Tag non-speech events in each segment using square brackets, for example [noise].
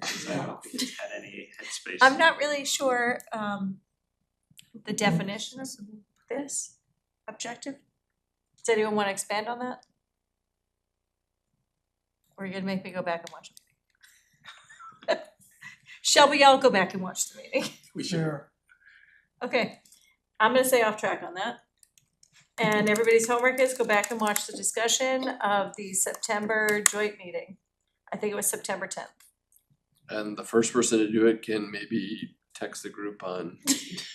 'cause I don't think it's had any headspace. I'm not really sure um the definition of this objective. Does anyone wanna expand on that? Or you're gonna make me go back and watch the meeting? [laughs] Shall we all go back and watch the meeting? [laughs] We should, Sure. Okay, I'm gonna stay off track on that. And everybody's homework is go back and watch the discussion of the September joint meeting. I think it was September tenth. And the first person to do it can maybe text the group on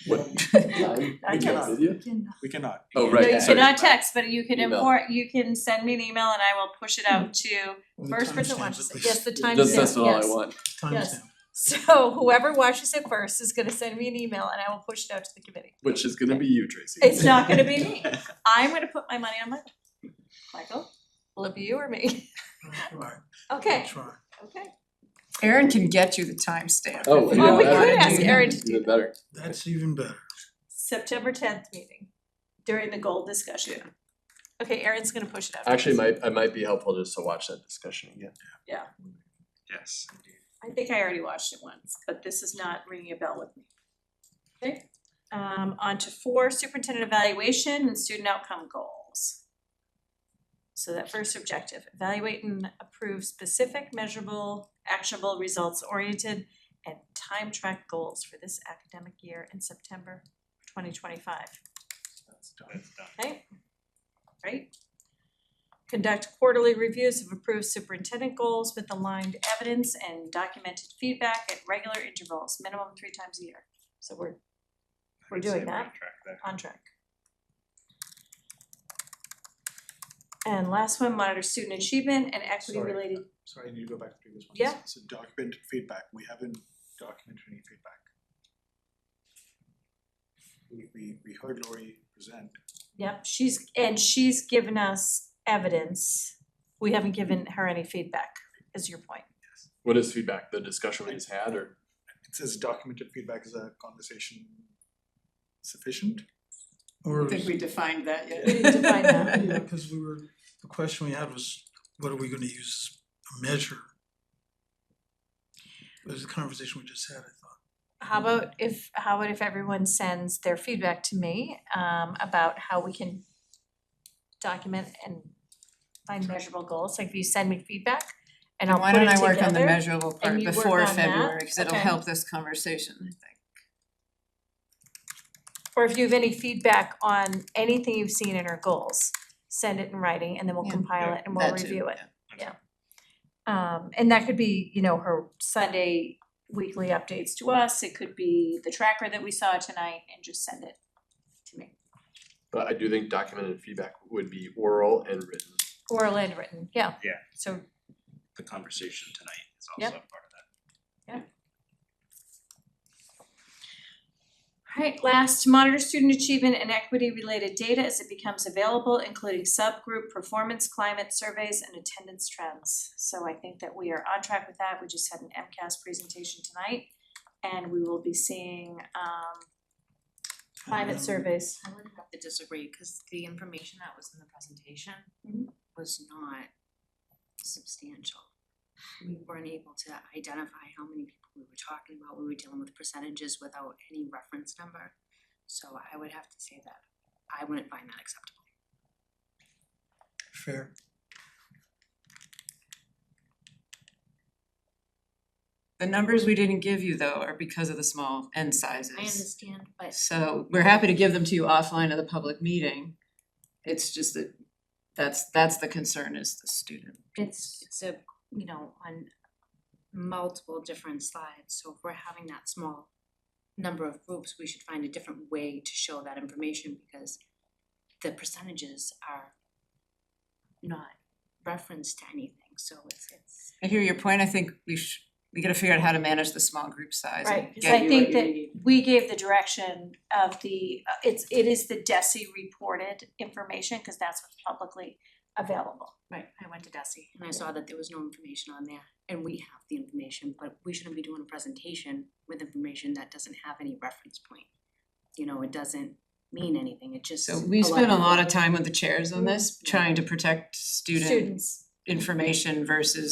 what time I [laughs] we got cannot. video? We cannot. Oh, No, right, you sorry. cannot text, but you can Email. import, you can send me an email and I will push it out to Well, the first person timestamps watches at it, least. yes, the timestamp, yes. Just that's all I want. yes. Timestamp. [laughs] So whoever watches it first is gonna send me an email and I will push it out to the committee. Which is gonna be you, Tracy. It's not gonna [laughs] be me. I'm gonna put my money on Michael. Michael, will it be you or me? [laughs] Right, Okay, try. okay. Erin can get you the timestamp. Oh, if you yeah, don't Or we wanna could do ask that. Erin to do Even better. That's even better. September tenth meeting during the goal discussion. Okay, Erin's gonna push it out. Actually, might, I might be helpful just to watch that discussion again. yes, I think I already watched it once, but this is not ringing a bell with me. Okay, um, on to four, superintendent evaluation and student outcome goals. So that first objective, evaluate and approve specific, measurable, actionable, results-oriented and time track goals for this academic year in September twenty twenty-five. that's done. Okay, right? Conduct quarterly reviews of approved superintendent goals with aligned evidence and documented feedback at regular intervals, minimum three times a year. So we're We're I'd say doing on that. track there. on track. And last one, monitor student achievement and equity Sorry. related, Sorry, I need to go back to previous ones. Yeah. So documented feedback, we haven't documented any feedback. We we we heard Lori present, yep, she's, and she's given us evidence. We haven't given her any feedback, is your point. What is feedback? The discussion we just had or? it says documented feedback is a conversation sufficient? Or I think we defined that yet. We didn't define [laughs] that. Yeah, cause we were, the question we had was, what are we gonna use to measure? It was a conversation we just had, I thought. How about if, how about if everyone sends their feedback to me um about how we can document and find measurable goals, like if you send me feedback and I'll Why put don't it I work on the together. measurable and part you work before on that? February, cause it'll Okay. help this conversation, I think. Or if you have any feedback on anything you've seen in our goals, send it in writing and then we'll Yeah. compile it and we'll That too, review it. yeah. Um and that could be, you know, her Sunday weekly updates to us, it could be the tracker that we saw tonight and just send it to me. But I do think documented feedback would be oral and written. Oral and written, yeah. Yeah. So The conversation tonight is Yep. also part of that. Alright, last, monitor student achievement and equity related data as it becomes available, including subgroup performance, climate surveys, and attendance trends. So I think that we are on track with that, we just had an MCAS presentation tonight, and we will be seeing um climate Um, surveys. I would have to disagree, cause the information that was in the presentation Mhm. was not substantial. We weren't able to identify how many people we were talking about, we were dealing with percentages without any reference number. So I would have to say that I wouldn't find that acceptable. Fair. The numbers we didn't give you though are because of the small end sizes. I understand, but So we're happy to give them to you offline at the public meeting. It's just that, that's, that's the concern is the student. it's it's a, you know, on multiple different slides, so if we're having that small number of groups, we should find a different way to show that information because the percentages are not referenced to anything, so it's it's I hear your point, I think we should, we gotta figure out how to manage the small group size Right, and cause I get you what think you that need. we gave the direction of the, uh, it's, it is the DESI reported information, cause that's what's publicly available. Right, I went to Desi and I saw that there was no information on there and we have the information, but we shouldn't be doing a presentation with information that doesn't have any reference point. You know, it doesn't mean anything, it just So we spent a of lot of time with the chairs on this, trying to protect student Students. information versus